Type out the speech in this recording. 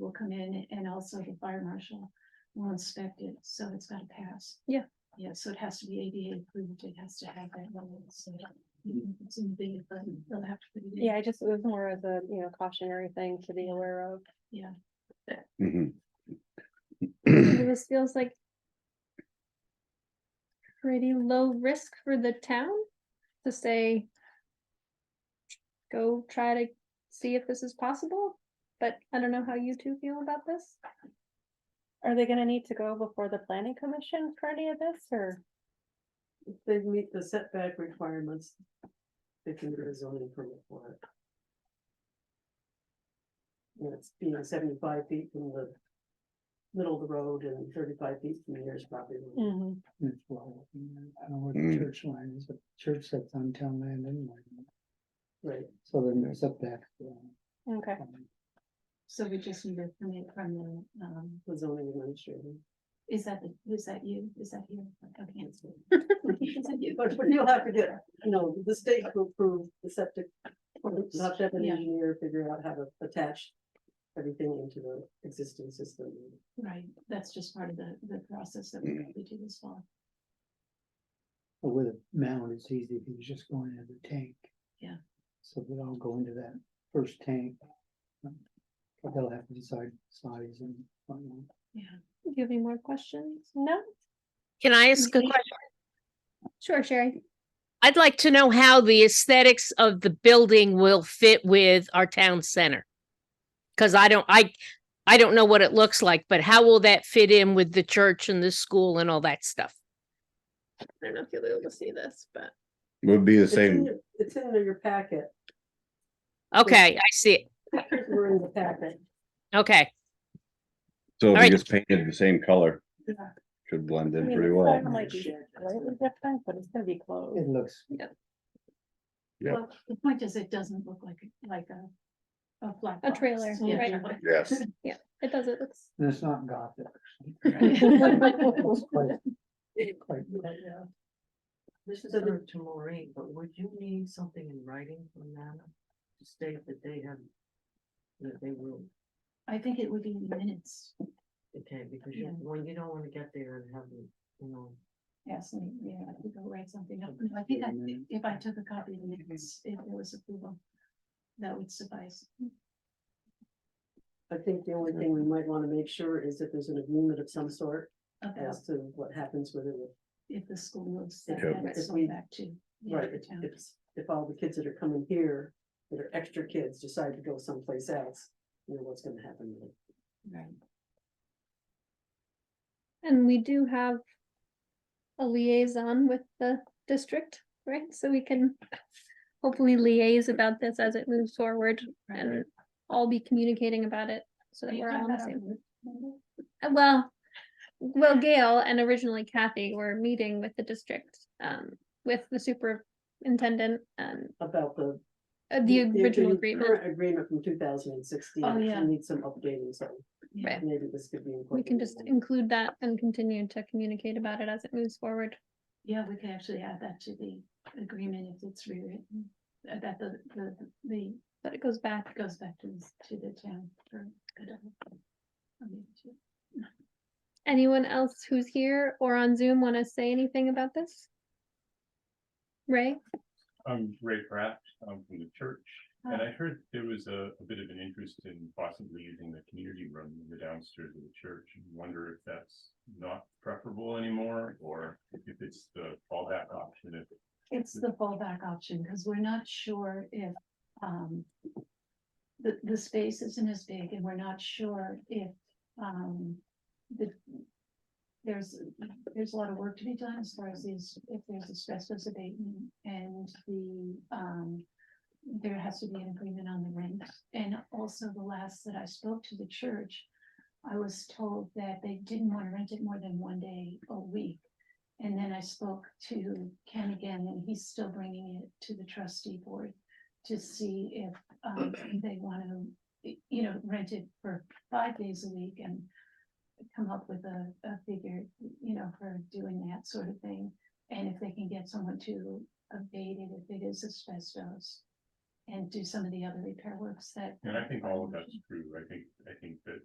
will come in and also the fire marshal will inspect it, so it's gotta pass. Yeah. Yeah, so it has to be ADA approved, it has to have that level, so it's in the big, but they'll have to. put it in. Yeah, I just, it was more as a, you know, cautionary thing to be aware of. Mhm. Mm-hmm. This feels like pretty low risk for the town to say, go try to see if this is possible, but I don't know how you two feel about this. Are they gonna need to go before the planning commission for any of this, or? They meet the setback requirements. They can get a zoning permit for it. And it's being seventy-five feet from the middle of the road and thirty-five feet from the nearest property. Mm. line. Mm-hmm. It's well, I don't know where the Mm. church line is, but church that's on town land anyway, Right, so then there's up uh, um, there. Okay, So we just need to come in from the, um, the zoning administrator. is that, the- is that you, is that you? Okay. That's what- Is that you? But what you'll have to do, no, the state will approve the septic. You'll have to have an Yeah. engineer figure out how to attach everything into the existing system. Right, that's just part of the, the process that we we do this fall. But With a mound, it's easy if you just go into the tank. Yeah. So we all go into that first tank. But They'll have to decide size and. whatnot. do you have any more questions? No? Can I ask a Mhm. question? Sure, Sherry. I'd like to know how the aesthetics of the building will fit with our town center. Cause I don't, I, I don't know what it looks like, but how will that fit in with the church and the school and all that stuff? I don't know if you'll be able to see this, but. Would be the It's in same, your- It's in your packet. Okay, I see it. Pictures were in the packet. Okay. so if Alright. you just painted the same color. Yeah. Should blend in mean, pretty it's well. not like Slightly different, but it's gonna be close. It looks, Yep. Well, The point is, it doesn't look like, a- like a, a flat. A box. trailer, Yeah. right. Yes, It does, it looks. and it's not gothic. It's quite- quite- This is similar to Maureen, but would you need something in writing from them to state that they have? That they will, I think it would be in minutes, okay, because you, Yeah. when you don't wanna get there and have, them, you know, ask me, yeah, I could go write something up, No, I think I, if I took a copy of the minutes, if there was approval. That would suffice, I think the only thing we might wanna make sure is that there's an agreement of some sort about as to what happens with it. if the school moves that, Yeah, that's if going we- back to. the Right, other if, town. if, if all the kids that are coming here, that are extra kids, decide to go someplace else, you know, what's gonna happen with it. Right. And we do have a liaison with the district, right? So we can hopefully liaise about this as it moves forward and all be communicating about it so that You we're got all on the that same. on the- Uh, Well, well, Gail and originally Kathy were meeting with the district, um, with the superintendent and About the. uh, the original current agreement. Agreement from two thousand and sixteen, Oh, yeah. we need some updating, so Yeah. maybe this could be. We can just include that and continue to communicate about it as it moves forward. Yeah, we could actually add that to the agreement if it's rewritten, uh, that the, the, the, But it goes back it goes back to, this- to the town for. for- I mean, to- Anyone else who's here or on Zoom want to say anything about this? Ray, I'm Ray Pratt, I'm from the church, and Hi. I heard there was a, a bit of an interest in possibly using the community room in the downstairs of the church. and Wonder if that's not preferable anymore, or if it's the fallback option, if It's the fallback option, because we're not sure if, um. The, the space isn't as big and we're not sure if, um, the. There's, there's a lot of work to be done as far as these, if there's asbestos abatement and the, um. There has to be an agreement on the rent, and also the last that I spoke to the church. I was told that they didn't want to rent it more than one day a week. And then I spoke to Ken again, and he's still bringing it to the trustee board to see if, um, they want to, you know, rent it for five days a week and come up with a, a figure, you know, for doing that sort of thing. And if they can get someone to abate it, if it is asbestos, and do some of the other repair works that. And I think all of that's true. I think, I think that